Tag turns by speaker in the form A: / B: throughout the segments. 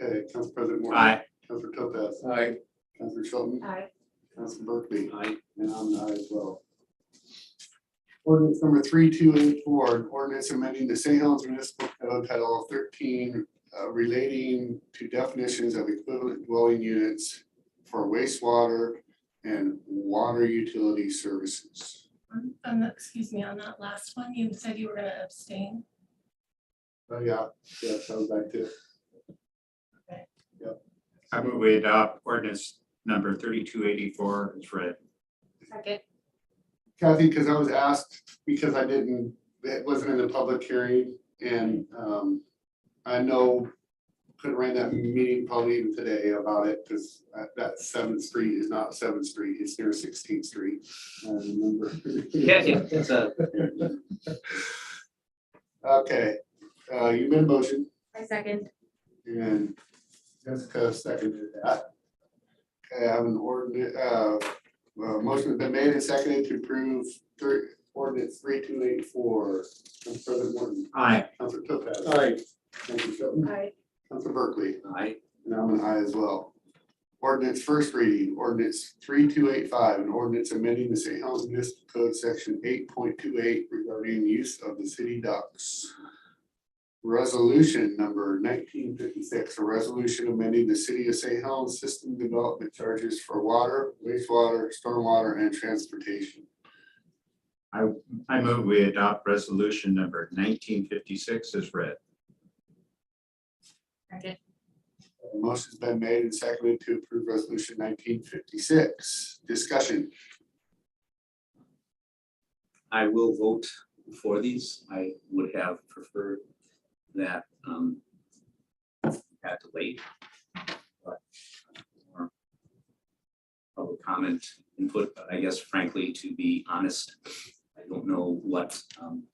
A: Okay, Council President Moore.
B: Aye.
A: Council Topaz.
C: Aye.
A: Council Shelton.
D: Aye.
A: Council Berkeley. And I'm an aye as well. Ordinance number three two eight four, an ordinance amending the St. Helens Municipal Code Title thirteen uh, relating to definitions of equivalent dwelling units for wastewater and water utility services.
D: Um, um, excuse me, on that last one, you said you were gonna abstain.
A: Oh, yeah, yeah, sounds like this.
B: I move we adopt ordinance number thirty-two eighty-four is read.
D: Second.
A: Kathy, because I was asked, because I didn't, it wasn't in the public hearing, and um, I know, could have ran that meeting probably even today about it, because that Seventh Street is not Seventh Street, it's near Sixteenth Street. I remember.
E: Yeah, yeah, it's uh, a,
A: Okay, uh, you made a motion,
D: I second.
A: and Jessica seconded that. Okay, I have an ordinance, uh, well, motion has been made and seconded to approve third, ordinance three two eight four. President Morton.
B: Aye.
A: Counselor Topaz.
C: Aye.
A: Counselor Shelton.
D: Aye.
A: Counselor Berkeley.
E: I,
A: And I'm an aye as well. Ordinance first reading, ordinance three two eight five, an ordinance amending the St. Helens Municipal Code, section eight point two eight regarding use of the city docks. Resolution number nineteen fifty-six, a resolution amending the city of St. Helens system development charges for water, wastewater, stormwater, and transportation.
B: I move we adopt resolution number nineteen fifty-six is read.
D: Second.
A: A Motion's been made and seconded to approve resolution nineteen fifty-six. Discussion.
E: I will vote for these. I would have preferred that, um, had to wait. but uh, more Public comment input, but I guess frankly, to be honest, I don't know what, um,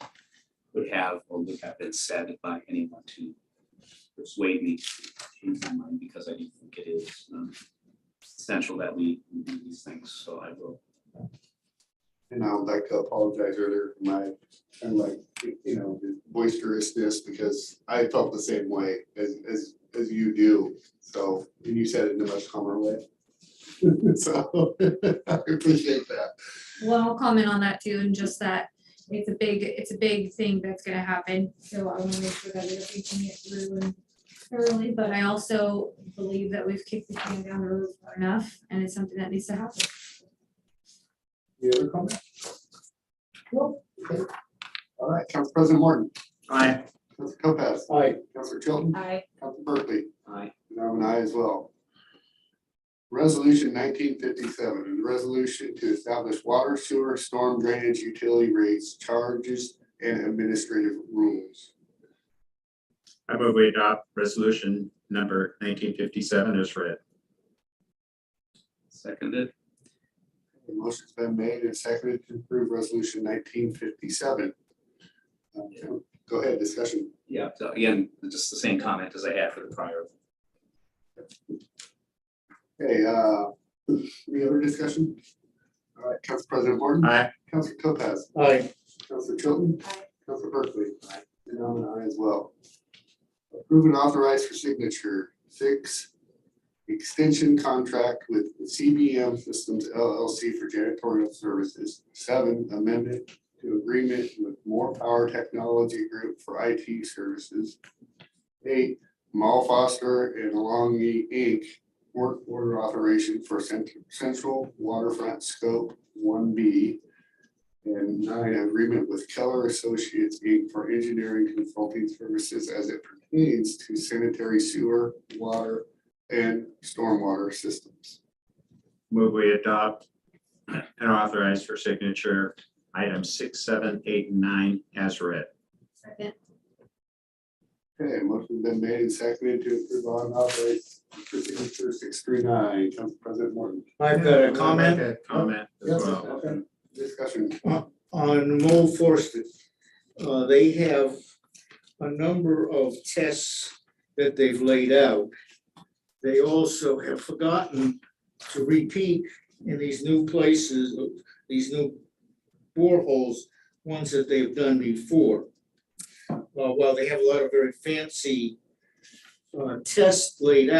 E: would have or would have been said by anyone to persuade me to change my mind, because I do think it is, um, essential that we do these things, so I will
A: And I would like to apologize earlier for my, kind of like, you know, boisterousness because I felt the same way as, as, as you do. So, and you said it in a much calmer way. So, I appreciate that.
F: Well, I'll comment on that too, and just that it's a big, it's a big thing that's gonna happen, so I wanna make sure that we're reaching it through and thoroughly, but I also believe that we've kicked the can down the road far enough, and it's something that needs to happen.
A: Any other comment? No. Okay. All right, Council President Morton,
B: Aye.
A: Council Topaz,
C: Aye.
A: Council Chilton,
D: Aye.
A: Council Berkeley.
E: I
A: And I'm an aye as well. Resolution nineteen fifty-seven, a resolution to establish water, sewer, storm drainage, utility rates, charges, and administrative rules.
B: I move we adopt resolution number nineteen fifty-seven is read.
E: seconded.
A: The motion's been made and seconded to approve resolution nineteen fifty-seven. Uh, Go ahead, discussion.
E: Yeah, so again, just the same comment as I had for the prior.
A: Hey, uh, any other discussion? All right, Council President Morton.
B: Aye.
A: Council Topaz.
C: Aye.
A: Counselor Chilton.
D: Aye.
A: Counselor Berkeley. And I'm an aye as well. Approve and authorize for signature, six, extension contract with CBM Systems LLC for janitorial services. Seven, amendment to agreement with More Power Technology Group for IT services. Eight, Mal Foster and Longy Inc. work order authorization for cent- central waterfront scope one B. And nine, agreement with Keller Associates Inc. for engineering consulting services as it pertains to sanitary sewer, water, and stormwater systems.
B: Move we adopt and authorize for signature item six, seven, eight, and nine as read.
F: Second.
A: Okay, motion been made and seconded to approve on operate for signature six three nine, Council President Morton.
C: I've got a
B: I'd
C: comment
B: like to Comment as
C: Yes.
B: well.
A: Okay, Discussion.
C: on Mo Forster. Uh, they have a number of tests that they've laid out. They also have forgotten to repeat in these new places, these new boreholes, ones that they've done before. Uh, while they have a lot of very fancy uh, test laid out.